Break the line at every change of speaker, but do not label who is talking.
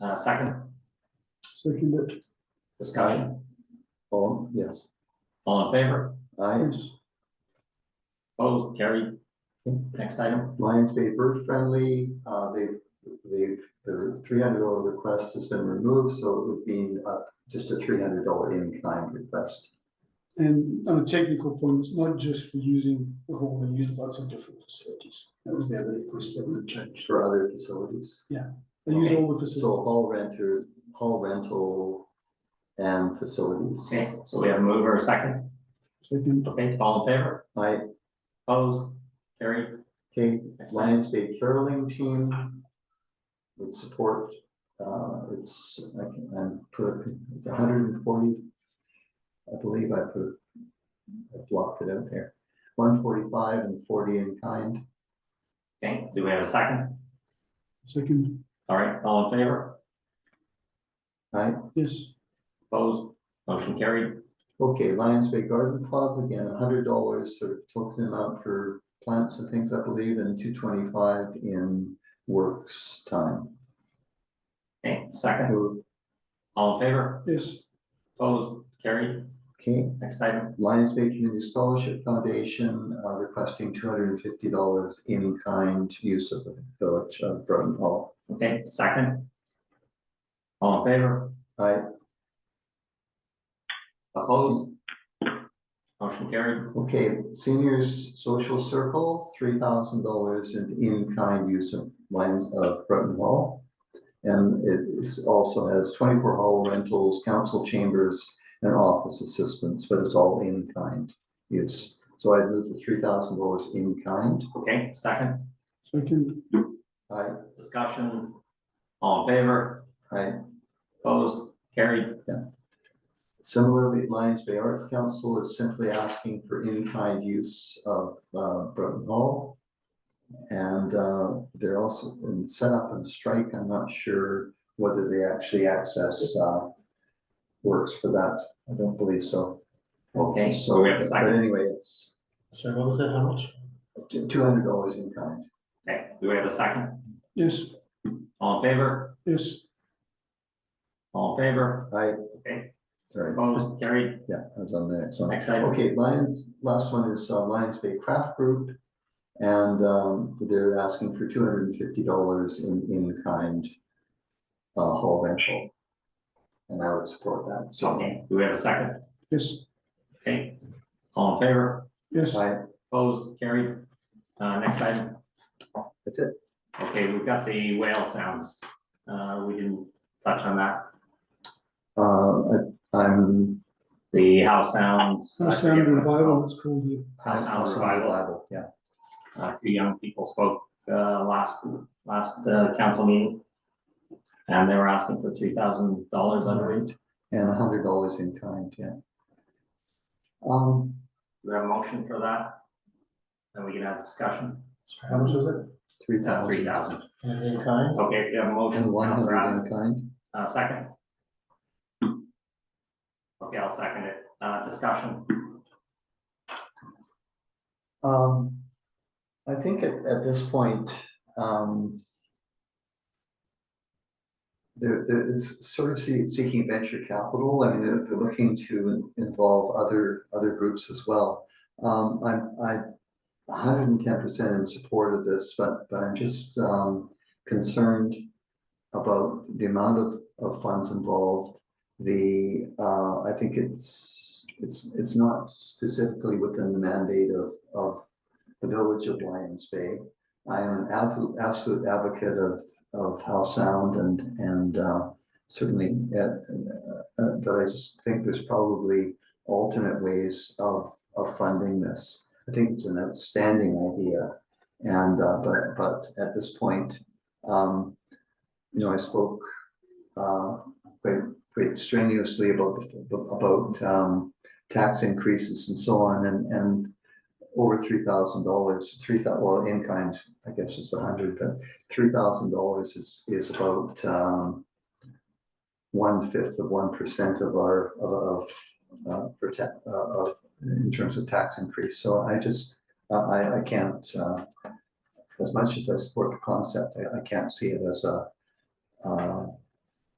Uh, second
Second,
discussion,
Oh, yes,
all in favor,
Lions,
opposed, carried. Next item,
Lions Bay Bird Friendly, uh, they've, they've, their three hundred dollar request has been removed, so it would be, uh, just a three hundred dollar in-kind request.
and on a technical point, it's not just for using the hall, they use lots of different facilities. That was the other request that we changed.
For other facilities,
They use all the
so
facilities.
all renters, all rental and facilities.
okay, so we have a mover, a second,
Second,
okay, all in favor,
I,
opposed, carried.
Kate,
Next item.
Lions Bay Caroling Team would support, uh, it's, I can, I'm, put- it's hundred and forty. I believe I put, I blocked it out there, one forty-five and forty in kind.
okay, do we have a second,
second,
all right, all in favor,
Right,
yes,
opposed, motion carried,
okay, Lions Bay Garden Club, again, hundred dollars sort of token amount for plants and things, I believe, and two twenty-five in works time.
okay, second,
Move,
all in favor,
yes,
opposed, carried.
okay,
Next item,
Lions Bay Community Scholarship Foundation uh, requesting two hundred and fifty dollars in kind use of the village of Broughton Hall.
okay, second. All in favor,
I,
opposed, motion carried,
okay, Seniors Social Circle, three thousand dollars in in kind use of Lions of Broughton Hall. And it is- also has twenty-four hall rentals, council chambers, and office assistance, but it's all in kind use. So I move the three thousand dollars in kind.
okay, second,
second,
I,
discussion, all in favor,
I
opposed, carried,
Similarly, Lions Bay Arts Council is simply asking for in-kind use of uh, Broughton Hall. And uh, they're also in setup and strike. I'm not sure whether they actually access uh, works for that. I don't believe so.
okay, so
So,
we have a
but
second,
anyway, it's
Sorry, what was that, how much?
two hundred dollars in kind.
okay, do we have a second,
yes,
all in favor,
yes,
all in favor,
I,
okay,
sorry,
opposed, carried,
yeah, I was on the next one.
next item,
Okay, Lions, last one is uh, Lions Bay Craft Group. And um, they're asking for two hundred and fifty dollars in, in kind uh, hall rental. And I would support that.
so, okay, do we have a second,
yes,
okay, all in favor,
yes,
I,
opposed, carried. Uh, next item,
that's it.
okay, we've got the whale sounds, uh, we didn't touch on that.
Uh, I- I'm.
The house sounds. I
House
forget
sound
what it's
revival,
called.
it's called here,
House Sound Revival.
Yeah,
Uh, two young people spoke, uh, last, last, uh, council meeting. And they were asking for three thousand dollars under it.
right. And hundred dollars in kind, yeah. Um,
Do we have a motion for that? Then we can have discussion. Uh,
Sorry, how much was
three
Three
thousand.
thousand.
it? And in kind?
Okay, we have a
And
motion,
one
Councilor
hundred in
Abbott,
kind.
uh, second. Okay, I'll second it. Uh, discussion.
Um, I think at, at this point, um. There, there is sort of see- seeking venture capital, I mean, they're, they're looking to in- involve other, other groups as well. Um, I'm, I'm hundred and ten percent in support of this, but, but I'm just, um, concerned about the amount of, of funds involved. The, uh, I think it's, it's, it's not specifically within the mandate of, of the village of Lions Bay. I am an absolute, absolute advocate of, of how sound and, and, uh, certainly, uh, uh, but I just think there's probably alternate ways of, of funding this. I think it's an outstanding idea. And, uh, but, but at this point, um, you know, I spoke, uh, quite, quite strenuously about, about, um, tax increases and so on, and, and over three thousand dollars, three thousand well, in kind, I guess is a hundred, but three thousand dollars is, is about, um, one fifth of one percent of our, of, of, uh, per ta- uh, of, in terms of tax increase, so I just, I, I, I can't, uh, as much as I support the concept, I, I can't see it as a, uh,